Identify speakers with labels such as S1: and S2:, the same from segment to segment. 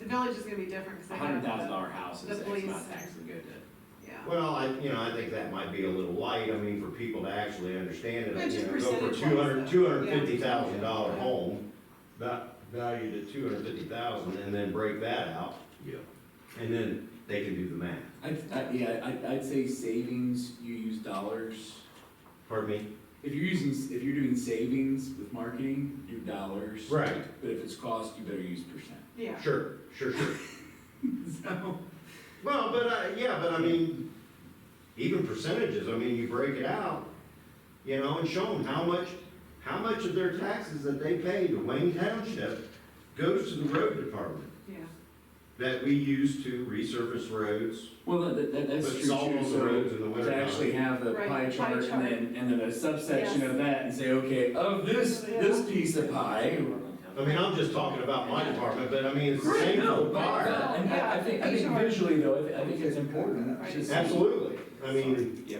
S1: village is gonna be different, cause they
S2: a
S1: have.
S2: hundred thousand dollar house
S1: the
S2: is X
S1: police.
S2: amount tax would go to,
S1: Yeah,
S3: Well, I, you know, I think that might be a little light, I mean, for people to actually understand
S1: Yeah,
S3: it,
S1: just
S3: you know, go for
S1: percentage-wise,
S3: two hundred,
S1: though.
S3: two hundred fifty thousand dollar home, va- valued at two hundred fifty thousand, and then break that out,
S4: Yeah.
S3: and then they can do the math.
S4: I'd, I, yeah, I'd, I'd say savings, you use dollars.
S3: Pardon me?
S4: If you're using, s- if you're doing savings with marketing, do dollars.
S3: Right,
S4: But if it's cost, you better use percent.
S1: yeah,
S3: sure, sure, sure.
S4: So,
S3: Well, but, uh, yeah, but I mean, even percentages, I mean, you break it out, you know, and show them how much, how much of their taxes that they pay to Wayne Township goes to the road department
S1: yeah.
S3: that we use to resurface roads,
S4: well, that, that, that's
S3: put
S4: true.
S3: salt
S4: too.
S3: on the
S4: So
S3: roads in the winter
S4: To actually
S3: time.
S4: have the
S1: Right,
S4: pie
S1: pie
S4: chart
S1: chart.
S4: and then, and then a subsection
S1: Yes.
S4: of that and say, okay, of this, this piece of pie.
S3: I mean, I'm just talking about my department, but I mean, it's the
S4: Right,
S3: same
S4: no,
S3: for
S4: but-
S3: fire.
S4: but- And I, I think, I think
S1: Yeah.
S4: visually though, I thi- I think it's important.
S1: Right.
S4: to see-
S3: Absolutely, I mean,
S4: Yeah.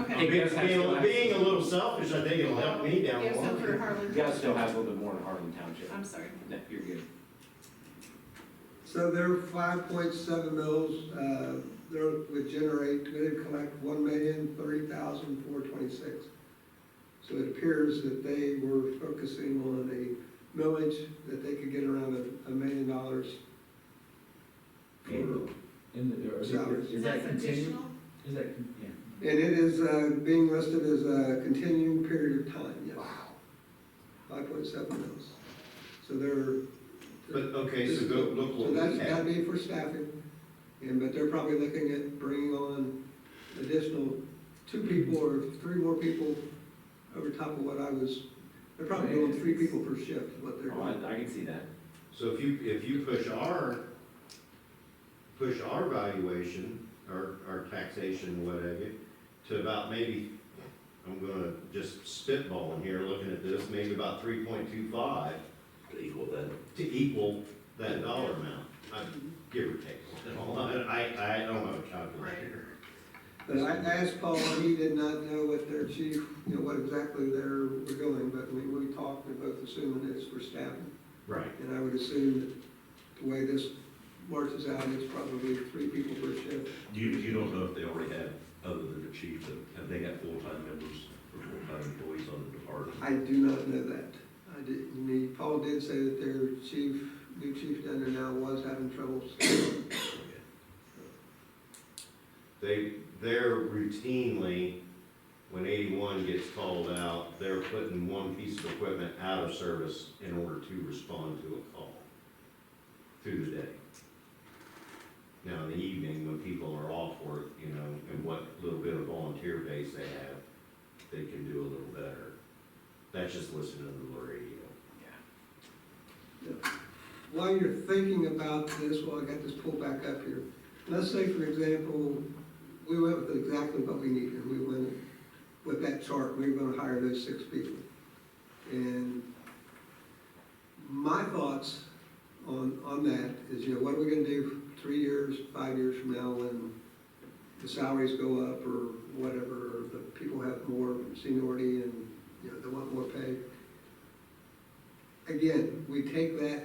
S1: Okay.
S3: being, being being a little selfish, I think it'll help me down
S1: Yeah,
S3: the
S1: so for
S3: line.
S1: Harlan.
S2: you gotta still have a little bit more in Harlan Township,
S1: I'm sorry.
S2: no, you're good.
S5: So their five point seven mills, uh, they're, would generate, would collect one million thirty thousand four twenty-six. So it appears that they were focusing on a millage that they could get around a, a million dollars for
S4: In the, or is it-
S5: Salaries.
S4: is that continuing? Is that, con- yeah.
S5: And it is uh, being listed as a continuing period of time, yes. Five point seven mils. So they're.
S3: But, okay, so go look
S5: So
S3: what we
S5: that's
S3: have.
S5: gotta be for staffing, and, but they're probably looking at bringing on additional two people or three more people over top of what I was, they're probably doing three people per shift, is what they're
S2: Oh,
S5: doing.
S2: I, I can see that,
S3: So if you, if you push our, push our valuation, our, our taxation, whatever, to about maybe, I'm gonna just spitball in here, looking at this, maybe about three point two five
S6: equal that.
S3: to equal that dollar amount, I, give or take. I, I don't have a calculator.
S5: But I asked Paul, and he did not know what their chief, you know, what exactly they're, were going, but I mean, we talked, we both assuming it's for staffing.
S3: Right.
S5: And I would assume that the way this marches out, it's probably three people per shift.
S6: You, you don't know if they already have, other than the chief, that, have they got full-time members or full-time employees on the department?
S5: I do not know that. I didn't, need- Paul did say that their chief, new chief down there now was having troubles.
S3: They, they're routinely, when eighty-one gets called out, they're putting one piece of equipment out of service in order to respond to a call through the day. Now, in the evening, when people are off work, you know, and what little bit of volunteer base they have, they can do a little better. That's just listening to the radio.
S5: While you're thinking about this, while I got this pulled back up here, let's say, for example, we went with exactly what we needed, we went with that chart, we were gonna hire those six people. And my thoughts on, on that is, you know, what are we gonna do three years, five years from now when the salaries go up or whatever, or the people have more seniority and, you know, they want more pay? Again, we take that,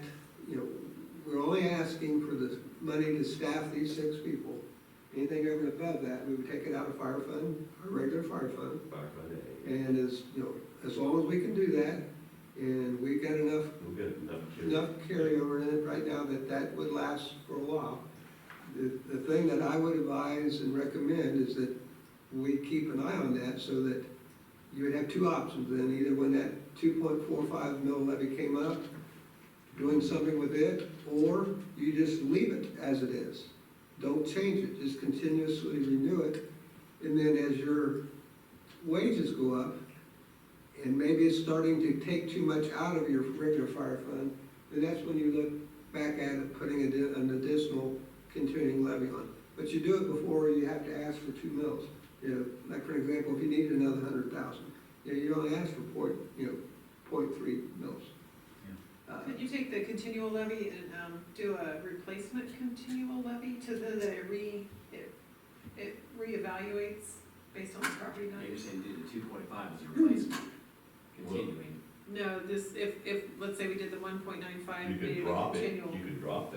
S5: you know, we're only asking for the money to staff these six people. Anything over and above that, we would take it out of fire fund, our regular fire fund,
S3: Back by day.
S5: and as, you know, as long as we can do that, and we've got enough,
S6: We've got enough to.
S5: enough carryover in it right now that that would last for a while. The, the thing that I would advise and recommend is that we keep an eye on that so that you would have two options then, either when that two point four five mil levy came up, doing something with it, or you just leave it as it is. Don't change it, just continuously renew it, and then as your wages go up, and maybe it's starting to take too much out of your regular fire fund, then that's when you look back at it, putting addi- an additional continuing levy on. But you do it before you have to ask for two mills. You know, like for example, if you needed another hundred thousand, you know, you only ask for point, you know, point three mills. Uh,
S1: Could you take the continual levy and, um, do a replacement continual levy to the, that it re, it, it reevaluates based on the property
S2: Now
S1: value?
S2: you're saying do the two point five as a replacement, continuing.
S1: No, this, if, if, let's say we did the one point nine five,
S6: You
S1: maybe
S6: could
S1: a
S6: drop it,
S1: continual.
S6: you could drop that